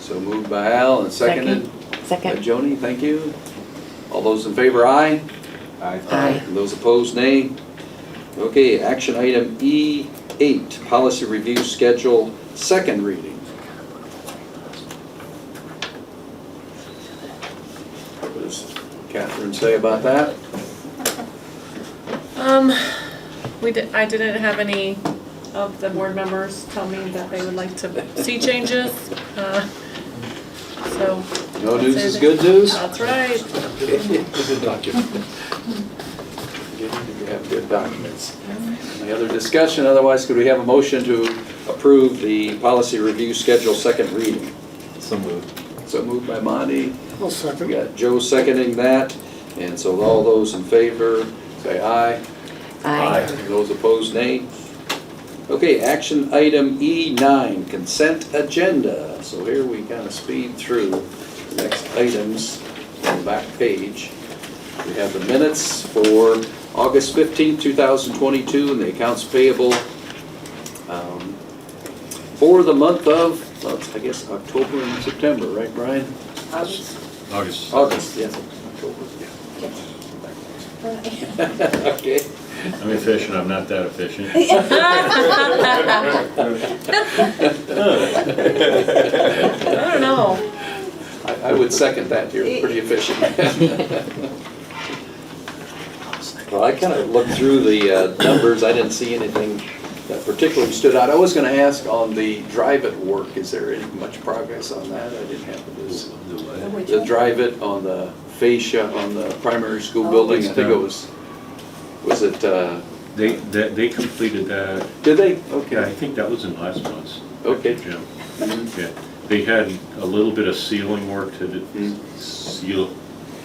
So moved by Al and seconded by Second? Joni, thank you. All those in favor, aye. Aye. Those opposed, nay. Okay, action item E8, policy review schedule, second reading. What does Catherine say about that? Um, we did, I didn't have any of the board members tell me that they would like to see changes, uh, so, No news is good news? that's right. Good document. You have good documents. Any other discussion? Otherwise, could we have a motion to approve the policy review schedule, second reading? So moved. So moved by Monty, I'll we second. got Joe seconding that, and so all those in favor, say aye. Aye. Those opposed, nay. Okay, action item E9, consent agenda. So here we kind of speed through the next items on the back page. We have the minutes for August 15, 2022, and the accounts payable um, for the month of, well, it's, I guess, October and September, right, Brian? August. August, yes. October, yeah. Okay. I'm efficient, I'm not that efficient. I don't know. I I would second that, you're pretty efficient. Well, I kind of looked through the uh, numbers, I didn't see anything that particularly stood out. I was going to ask on the drive-it work, is there any much progress on that? I didn't have this. The drive-it on the fascia on the primary school building, I think it was, was it, uh, They, they they completed that, did they? yeah, I Okay, think that was in last month's. Okay. Jim. Yeah, they had a little bit of sealing work to do, Mhm. seal,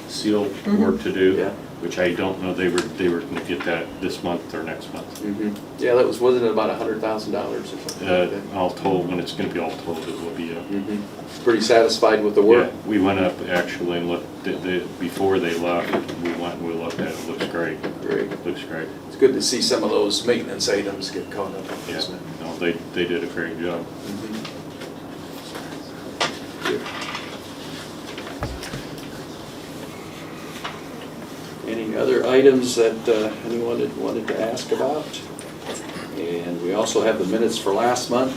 seal work to do. Yeah. Which I don't know, they were, they were gonna get that this month or next month. Mhm. yeah, that was, wasn't it about a hundred thousand dollars or something like Uh, that? all told, when it's gonna be all told, it will be a Mhm. Pretty satisfied with the Yeah, work? we went up actually and looked, at the, before they left, we went and we looked at it, looks great, Great. looks great. It's good to see some of those maintenance items get caught up, Yeah, isn't it? no, they, they did a great job. Any other items that uh, anyone had wanted to ask about? And we also have the minutes for last month.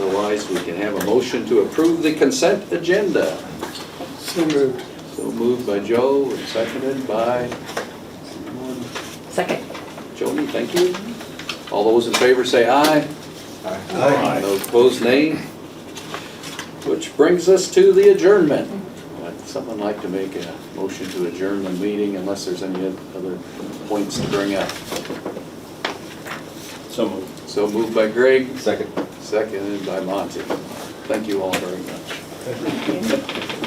Otherwise, we can have a motion to approve the consent agenda. So moved. So moved by Joe and seconded by someone. Second? Joni, thank you. All those in favor say aye. Aye. Those opposed, nay. Which brings us to the adjournment. Would someone like to make a motion to adjourn the meeting unless there's any other points to bring up? So moved. So moved by Greg, Second. seconded by Monty. Thank you all very much.